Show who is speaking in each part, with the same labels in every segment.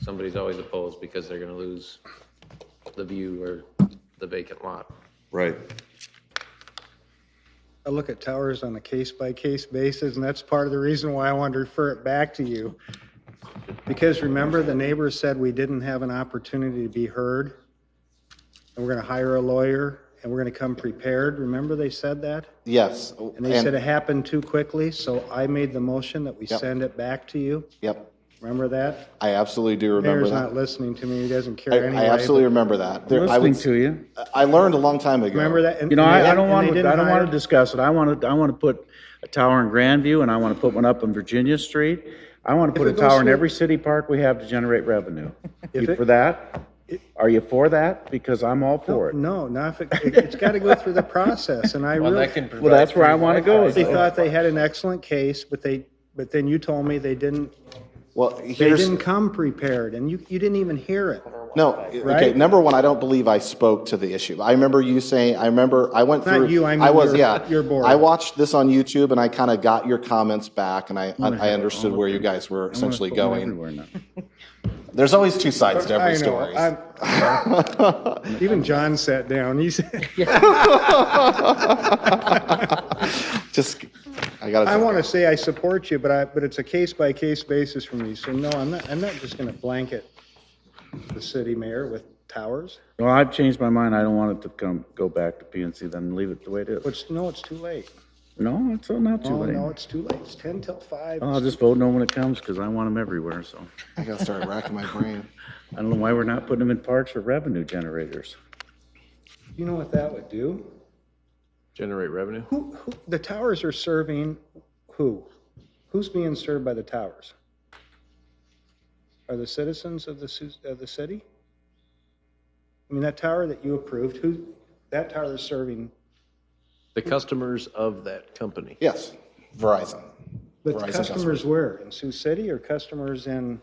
Speaker 1: somebody's always opposed because they're gonna lose the view or the vacant lot.
Speaker 2: Right.
Speaker 3: I look at towers on a case-by-case basis, and that's part of the reason why I wanted to refer it back to you. Because remember, the neighbors said we didn't have an opportunity to be heard, and we're going to hire a lawyer, and we're going to come prepared. Remember they said that?
Speaker 4: Yes.
Speaker 3: And they said it happened too quickly, so I made the motion that we
Speaker 4: Yep.
Speaker 3: send it back to you.
Speaker 4: Yep,
Speaker 3: Remember that?
Speaker 4: I absolutely do remember
Speaker 3: Mayor's not
Speaker 4: that.
Speaker 3: listening to me, he doesn't
Speaker 4: I
Speaker 3: care anyway.
Speaker 4: I absolutely remember that. There- I
Speaker 5: Listening
Speaker 4: was-
Speaker 5: to you.
Speaker 4: I learned a long time ago.
Speaker 3: but Remember that? and-
Speaker 5: You know,
Speaker 3: and they-
Speaker 5: I, I don't
Speaker 3: and
Speaker 5: want
Speaker 3: they
Speaker 5: to,
Speaker 3: didn't
Speaker 5: I don't want
Speaker 3: hire-
Speaker 5: to discuss it. I want to, I want to put a tower in Grandview and I want to put one up on Virginia Street. I want to put a
Speaker 3: it goes
Speaker 5: tower in
Speaker 3: through-
Speaker 5: every city park we have to generate revenue.
Speaker 3: If
Speaker 5: You
Speaker 3: it-
Speaker 5: for that? Are you for that? Because I'm all for it.
Speaker 3: No, not if, it- it's got to go through the process, and I
Speaker 1: Well,
Speaker 3: really.
Speaker 1: that can
Speaker 5: Well, that's where I want to go. is-
Speaker 3: They thought they had an excellent case, but they, but then you told me they didn't,
Speaker 4: Well,
Speaker 3: they
Speaker 4: here's,
Speaker 3: didn't come prepared, and you, you didn't even hear it.
Speaker 4: no, okay,
Speaker 3: Right?
Speaker 4: number one, I don't believe I spoke to the issue. I remember you saying, I remember, I went
Speaker 3: Not
Speaker 4: through.
Speaker 3: you, I mean
Speaker 4: was,
Speaker 3: your-
Speaker 4: yeah.
Speaker 3: your board.
Speaker 4: I watched this on YouTube and I kind of got your comments back and I, I understood where you guys were essentially going.
Speaker 5: Everywhere now.
Speaker 4: There's always two sides to
Speaker 3: I
Speaker 4: every
Speaker 3: know,
Speaker 4: story.
Speaker 3: I'm- Even John sat down, he said,
Speaker 4: Just, I gotta.
Speaker 3: I want to say I support you, but I, but it's a case-by-case basis for me, so no, I'm not, I'm not just going to blanket the city mayor with towers.
Speaker 5: Well, I've changed my mind. I don't want it to come, go back to PNC, then leave it the way it is.
Speaker 3: But, no, it's too late.
Speaker 5: No, it's not too
Speaker 3: Oh, no,
Speaker 5: late.
Speaker 3: it's too late, it's 10 till 5.
Speaker 5: I'll just vote no when it comes because I want them everywhere, so.
Speaker 4: I gotta start racking my brain.
Speaker 5: I don't know why we're not putting them in parks or revenue generators.
Speaker 3: You know what that would do?
Speaker 1: Generate revenue?
Speaker 3: Who, who, the towers are serving who? Who's being served by the towers? Are the citizens of the, su- of the city? I mean, that tower that you approved, who, that tower is serving,
Speaker 1: The customers of that company.
Speaker 4: Yes, Verizon.
Speaker 3: but
Speaker 4: Verizon
Speaker 3: customers where? In Sioux City or customers in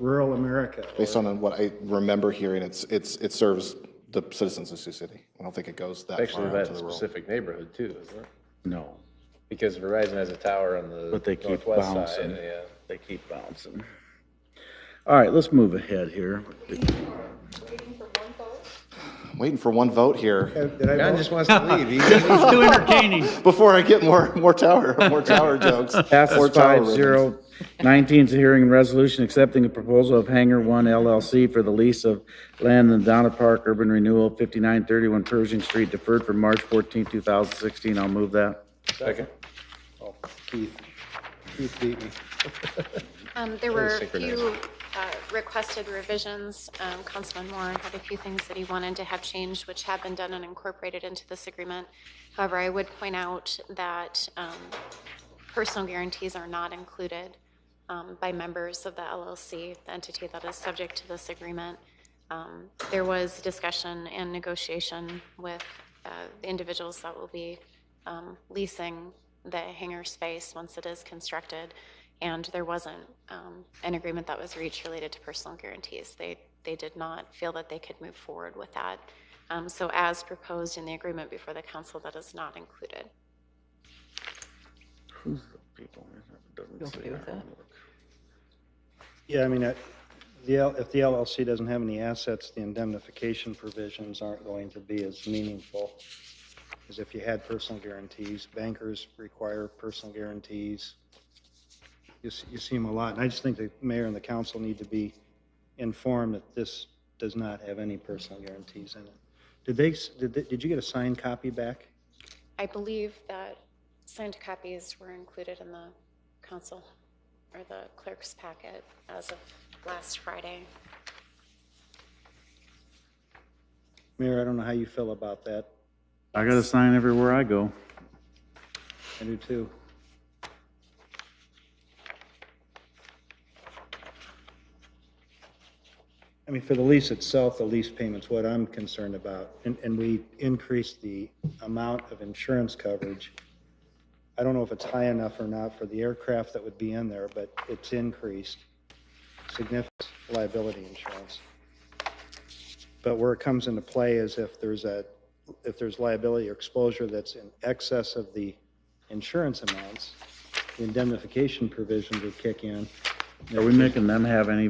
Speaker 3: rural America?
Speaker 4: Based on what I remember hearing, it's, it's, it serves the citizens of Sioux City. I don't think it goes that far
Speaker 1: Actually,
Speaker 4: out to
Speaker 1: that
Speaker 4: the rural.
Speaker 1: specific neighborhood too, isn't it?
Speaker 5: No,
Speaker 1: Because Verizon has a tower on the
Speaker 5: But they keep
Speaker 1: northwest side,
Speaker 5: bouncing.
Speaker 1: yeah.
Speaker 5: they keep bouncing. All right, let's move ahead here.
Speaker 4: I'm Waiting for one vote here
Speaker 3: Did I
Speaker 1: John
Speaker 3: vote?
Speaker 1: just wants to leave. He's-
Speaker 5: Too entertaining.
Speaker 4: before I get more, more tower, more tower jokes. more
Speaker 5: Passes
Speaker 4: tower
Speaker 5: five
Speaker 4: ribbons.
Speaker 5: zero. Nineteen's a hearing and resolution accepting a proposal of Hangar One LLC for the lease of land in the Donna Park Urban Renewal, fifty-nine thirty-one Pershing Street, deferred from March 14, thousand sixteen. I'll move that.
Speaker 1: Second.
Speaker 3: Oh, Keith, Keith beat me.
Speaker 6: Um, There were a
Speaker 1: synchronize.
Speaker 6: few uh, requested revisions. Um, Councilman Moore had a few things that he wanted to have changed, which have been done and incorporated into this agreement. However, I would point out that um, personal guarantees are not included um, by members of the LLC, the entity that is subject to this agreement. Um, There was discussion and negotiation with uh, the individuals that will be um, leasing the hangar space once it is constructed, and there wasn't um, an agreement that was reached related to personal guarantees. They, they did not feel that they could move forward with that. Um, So as proposed in the agreement before the council, that is not included.
Speaker 3: Yeah, I mean, that- the, L- if the LLC doesn't have any assets, the indemnification provisions aren't going to be as meaningful as if you had personal guarantees. Bankers require personal guarantees. You, s- you see them a lot, and I just think the mayor and the council need to be informed that this does not have any personal guarantees in it. Did they, s- did, they- did you get a signed copy back?
Speaker 6: I believe that signed copies were included in the council or the clerk's packet as of last Friday.
Speaker 3: Mayor, I don't know how you feel about that.
Speaker 5: I got a sign everywhere I go.
Speaker 3: I do too. I mean, for the lease itself, the lease payment's what I'm concerned about, and, and we increased the amount of insurance coverage. I don't know if it's high enough or not for the aircraft that would be in there, but it's increased significant liability insurance. But where it comes into play is if there's a, if there's liability or exposure that's in excess of the insurance amounts, the indemnification provisions would kick in.
Speaker 5: Are we making them have any